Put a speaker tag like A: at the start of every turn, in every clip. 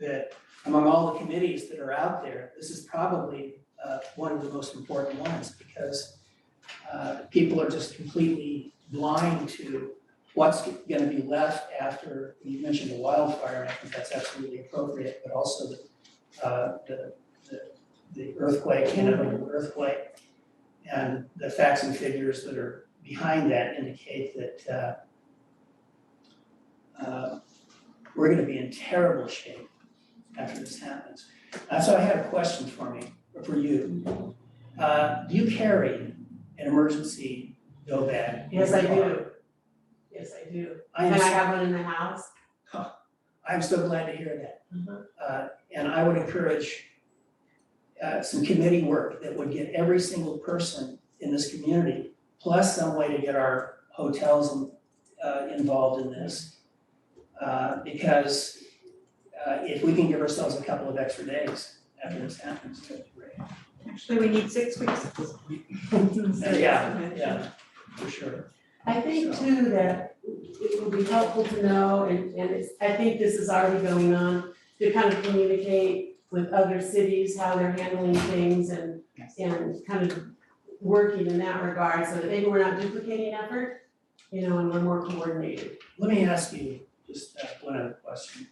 A: that among all the committees that are out there, this is probably uh, one of the most important ones because uh, people are just completely blind to what's gonna be left after, you mentioned the wildfire, and I think that's absolutely appropriate, but also the, uh, the, the- the earthquake, Hannibal earthquake. And the facts and figures that are behind that indicate that uh, uh, we're gonna be in terrible shape after this happens. Uh, So I had a question for me, for you. Uh, Do you carry an emergency go bag? in
B: Yes, I
A: your car?
B: do. Yes, I do.
A: I
B: And
A: am,
B: I
A: so-
B: have one in the house.
A: I'm so glad to hear that. Uh, and I would encourage uh, some committee work that would get every single person in this community, plus some way to get our hotels in- uh, involved in this. Uh, because uh, if we can give ourselves a couple of extra days after this happens, that'd be great.
C: Actually, we need six weeks.
A: Yeah, yeah, for sure.
B: I think too that it would be helpful to know, and, and it's, I think this is already going on, to kind of communicate with other cities, how they're handling things and, and kind of working in that regard, so that maybe we're not duplicating effort, you know, and we're more coordinated.
A: Let me ask you just uh, one other question.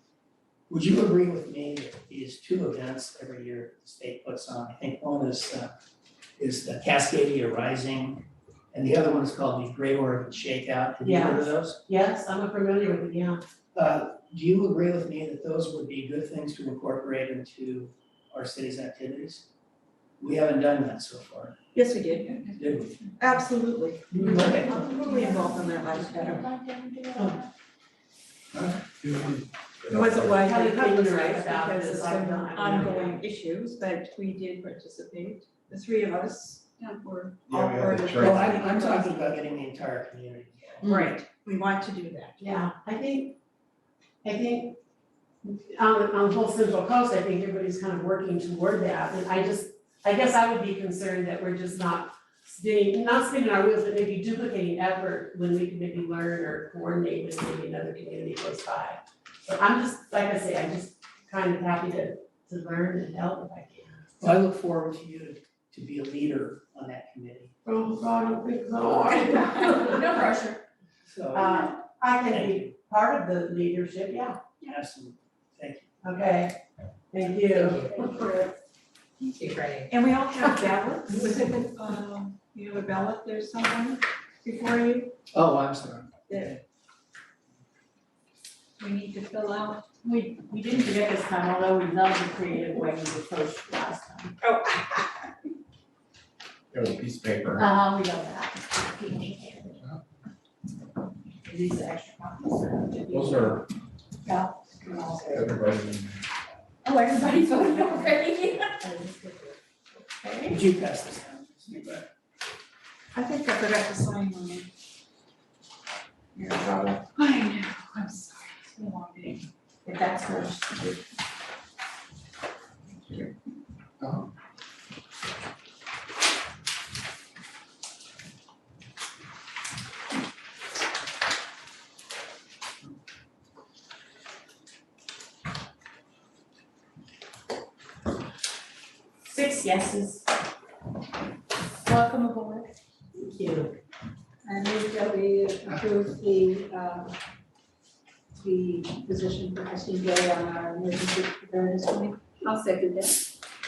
A: Would you agree with me that these two events every year the state puts on, I think one is, uh, is the Cascadia Rising, and the other one is called the Great Oregon Shakeout, have you heard of those?
B: Yes, I'm familiar with it, yeah.
A: Uh, do you agree with me that those would be good things to incorporate into our city's activities? We haven't done that so far,
C: Yes, we did,
A: did we?
C: absolutely.
A: Okay.
C: Totally involved in that last better. It
B: Oh.
D: Yeah.
C: wasn't
B: How
C: widely
B: did they
C: publicized
B: interact about
C: because
B: this?
C: of
B: I
C: some
B: don't- I don't
C: ongoing issues, but we did participate. The three of us yeah, were all
D: Yeah, we had
C: part
D: the
C: of the.
D: church.
A: Well, I'm, I'm talking about getting the entire community.
C: Right, we want to do that.
B: Yeah, I think, I think on, on the whole Central Coast, I think everybody's kind of working toward that, and I just, I guess I would be concerned that we're just not spinning, not spinning our wheels, but maybe duplicating effort when we can maybe learn or coordinate with maybe another community close by. So I'm just, like I say, I'm just kind of happy to, to learn and help if I can.
A: Well, I look forward to you to be a leader on that committee,
B: Oh, God, I don't think
C: No pressure.
A: so.
B: Uh, I can
A: Thank you.
B: be part of the leadership, yeah,
A: Absolutely, thank you.
B: okay, thank you.
C: And we all have ballots. Was it, um, you have a ballot there somewhere before you?
A: Oh, I'm sorry.
C: Yeah. We need to fill out.
B: We, we didn't do it this time, although we love the creative way we approached last time.
D: It was a piece of paper.
B: Uh, we love that. These are extra copies.
D: Those are everybody.
E: Oh, everybody voted already?
A: Would you pass this down?
C: I think I forgot to sign one.
D: Your job.
C: I know, I'm sorry, it's been a long day.
B: If that's her. Six yeses.
E: Welcome aboard.
B: Thank you.
F: I move that we approve the, um, the position for Christine Gay on our emergency preparedness committee. I'll second that.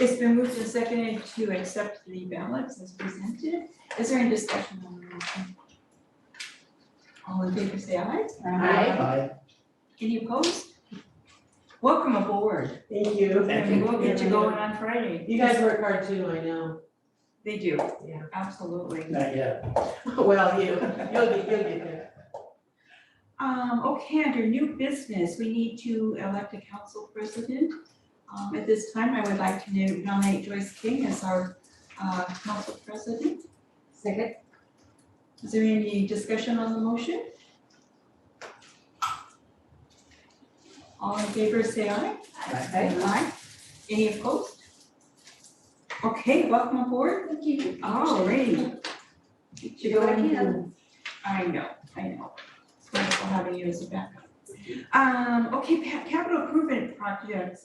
C: It's been moved and seconded to accept the ballots as presented. Is there any discussion on the motion? All in favor, say aye.
B: Aye.
A: Aye.
C: Any opposed? Welcome aboard.
B: Thank you.
A: Thank
C: And we'll get you going on Friday.
B: You guys work hard too, I know.
C: They do.
B: Yeah.
C: Absolutely.
A: Not yet.
B: Well, you, you'll get, you'll get there.
C: Um, okay, under new business, we need to elect a council president. Um, at this time, I would like to nominate Joyce King as our, uh, council president.
F: Second?
C: Is there any discussion on the motion? All in favor, say aye.
A: Aye.
C: Aye. Any opposed? Okay, welcome aboard.
E: Thank you.
C: All right.
F: She go again.
C: I know, I know. It's wonderful having you as a backup. Um, okay, pa- capital improvement projects